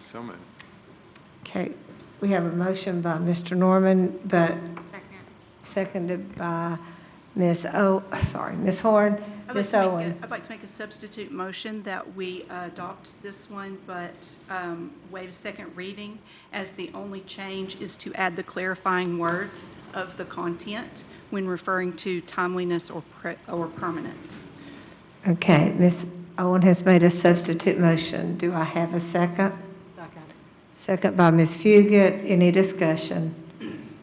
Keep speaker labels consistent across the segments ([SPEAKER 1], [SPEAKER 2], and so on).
[SPEAKER 1] So moved.
[SPEAKER 2] Okay, we have a motion by Mr. Norman, but seconded by Ms. O, sorry, Ms. Horn,
[SPEAKER 3] I'd like
[SPEAKER 2] Ms.
[SPEAKER 3] to make a-
[SPEAKER 2] Owen.
[SPEAKER 3] I'd like to make a substitute motion that we uh, adopt this one, but um, waive second reading, as the only change is to add the clarifying words of the content when referring to timeliness or pre- or permanence.
[SPEAKER 2] Okay, Ms. Owen has made a substitute motion. Do I have a second?
[SPEAKER 4] Second.
[SPEAKER 2] Second by Ms. Fugit. Any discussion?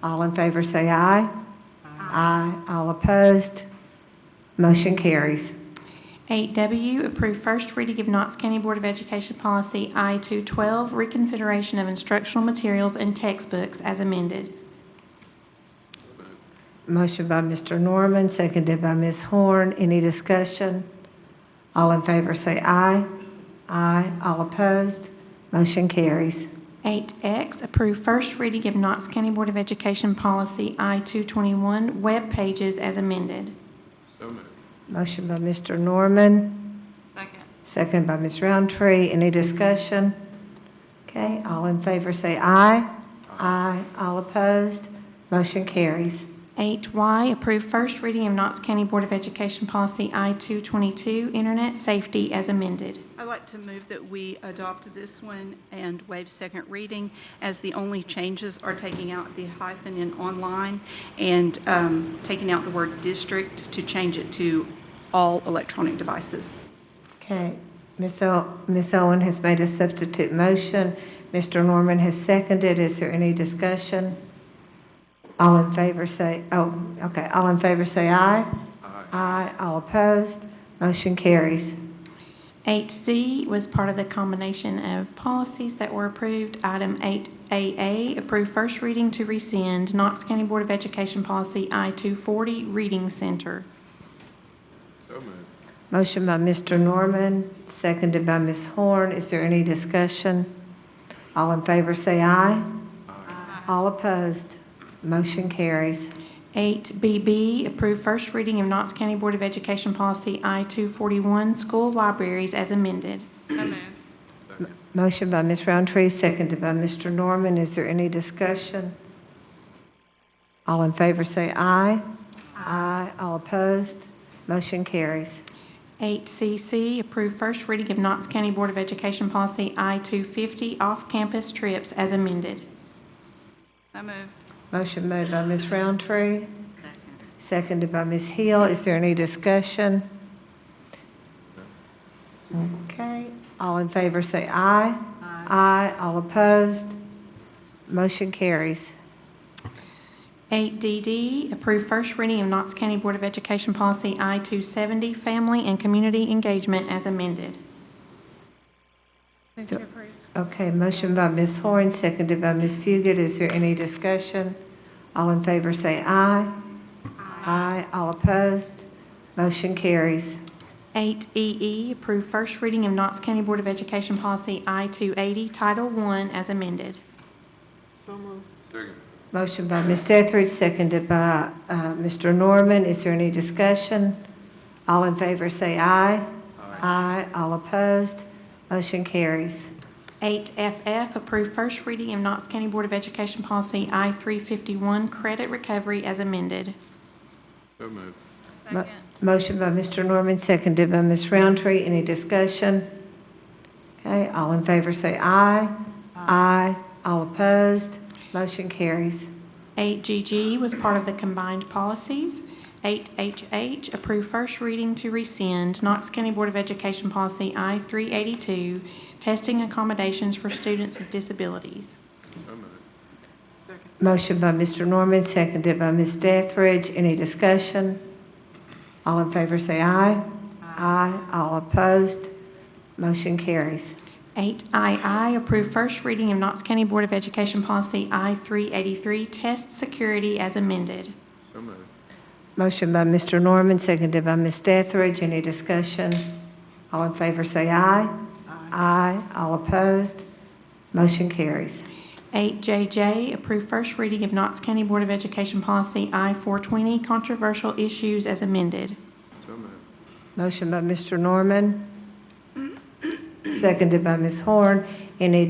[SPEAKER 2] All in favor say aye. Aye. All opposed? Motion carries.
[SPEAKER 5] 8W, approve first reading of Knox County Board of Education Policy I-212, reconsideration of instructional materials and textbooks as amended.
[SPEAKER 2] Motion by Mr. Norman, seconded by Ms. Horn. Any discussion? All in favor say aye. Aye. All opposed? Motion carries.
[SPEAKER 5] 8X, approve first reading of Knox County Board of Education Policy I-221, web pages as amended.
[SPEAKER 1] So moved.
[SPEAKER 2] Motion by Mr. Norman,
[SPEAKER 4] Second.
[SPEAKER 2] second by Ms. Roundtree. Any discussion? Okay, all in favor say aye. Aye. All opposed? Motion carries.
[SPEAKER 5] 8Y, approve first reading of Knox County Board of Education Policy I-222, internet safety as amended.
[SPEAKER 3] I'd like to move that we adopt this one and waive second reading, as the only changes are taking out the hyphen in online and um, taking out the word district to change it to all electronic devices.
[SPEAKER 2] Okay, Ms. O- Ms. Owen has made a substitute motion. Mr. Norman has seconded. Is there any discussion? All in favor say, oh, okay, all in favor say aye.
[SPEAKER 1] Aye.
[SPEAKER 2] Aye, all opposed. Motion carries.
[SPEAKER 5] 8Z was part of the combination of policies that were approved. Item 8AA, approve first reading to rescind Knox County Board of Education Policy I-240, Reading Center.
[SPEAKER 1] So moved.
[SPEAKER 2] Motion by Mr. Norman, seconded by Ms. Horn. Is there any discussion? All in favor say aye. Aye. All opposed. Motion carries.
[SPEAKER 5] 8BB, approve first reading of Knox County Board of Education Policy I-241, School Libraries as amended.
[SPEAKER 4] So moved.
[SPEAKER 1] Second.
[SPEAKER 2] Motion by Ms. Roundtree, seconded by Mr. Norman. Is there any discussion? All in favor say aye. Aye. All opposed? Motion carries.
[SPEAKER 5] 8CC, approve first reading of Knox County Board of Education Policy I-250, Off-Campus Trips as amended.
[SPEAKER 4] So moved.
[SPEAKER 2] Motion made by Ms. Roundtree,
[SPEAKER 4] Second.
[SPEAKER 2] seconded by Ms. Hill. Is there any discussion? Okay, all in favor say aye. Aye. All opposed? Motion carries.
[SPEAKER 5] 8DD, approve first reading of Knox County Board of Education Policy I-270, Family and Community Engagement as amended.
[SPEAKER 2] to Okay, motion by Ms. Horn, seconded by Ms. Fugit. Is there any discussion? All in favor say aye. Aye. All opposed? Motion carries.
[SPEAKER 5] 8EE, E approve first reading of Knox County Board of Education Policy I-280, Title I as amended.
[SPEAKER 1] Second.
[SPEAKER 2] Motion by Ms. Etheridge, seconded by uh, Mr. Norman. Is there any discussion? All in favor say aye. Aye. All opposed? Motion carries.
[SPEAKER 5] 8FF, approve first reading of Knox County Board of Education Policy I-351, Credit Recovery as amended.
[SPEAKER 1] So moved.
[SPEAKER 2] Mo- Motion by Mr. Norman, seconded by Ms. Roundtree. Any discussion? Okay, all in favor say aye. Aye. All opposed? Motion carries.
[SPEAKER 5] 8GG was part of the combined policies. 8HH, approve first reading to rescind Knox County Board of Education Policy I-382, testing accommodations for students with disabilities.
[SPEAKER 1] So moved.
[SPEAKER 2] Motion by Mr. Norman, seconded by Ms. Dethridge. Any discussion? All in favor say aye. Aye. All opposed? Motion carries.
[SPEAKER 5] 8II, approve first reading of Knox County Board of Education Policy I-383, test security as amended.
[SPEAKER 1] So moved.
[SPEAKER 2] Motion by Mr. Norman, seconded by Ms. Dethridge. Any discussion? All in favor say aye. Aye. All opposed? Motion carries.
[SPEAKER 5] 8JJ, approve first reading of Knox County Board of Education Policy I-420, controversial issues as amended.
[SPEAKER 1] So moved.
[SPEAKER 2] Motion by Mr. Norman, seconded by Ms. Horn. Any